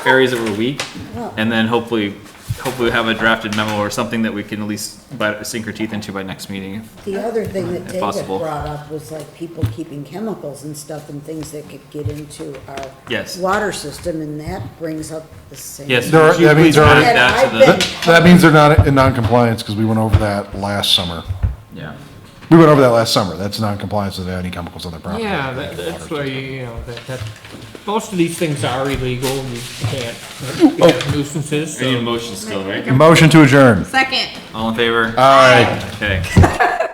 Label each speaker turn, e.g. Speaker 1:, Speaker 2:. Speaker 1: areas that were weak,
Speaker 2: Well-
Speaker 1: and then hopefully, hopefully have a drafted memo or something that we can at least bite- sink our teeth into by next meeting.
Speaker 2: The other thing that
Speaker 1: If
Speaker 2: David
Speaker 1: possible.
Speaker 2: brought up was like people keeping chemicals and stuff and things that could get into our
Speaker 1: Yes.
Speaker 2: water system, and that brings up the same.
Speaker 1: Yes,
Speaker 3: There are-
Speaker 1: would you
Speaker 3: that means
Speaker 1: please
Speaker 3: there are-
Speaker 1: add that to
Speaker 2: I've
Speaker 1: the,
Speaker 2: been-
Speaker 3: That that means they're not in non-compliance because we went over that last summer.
Speaker 1: yeah.
Speaker 3: We went over that last summer. That's non-compliance with any chemicals on their property.
Speaker 4: Yeah, that, that's why, you know, that, that, most of these things are illegal, you can't, you know, nuisances,
Speaker 1: We need
Speaker 4: so-
Speaker 1: a motion still, right?
Speaker 3: Motion to adjourn.
Speaker 5: Second.
Speaker 1: All in favor?
Speaker 3: Aye.
Speaker 1: Okay.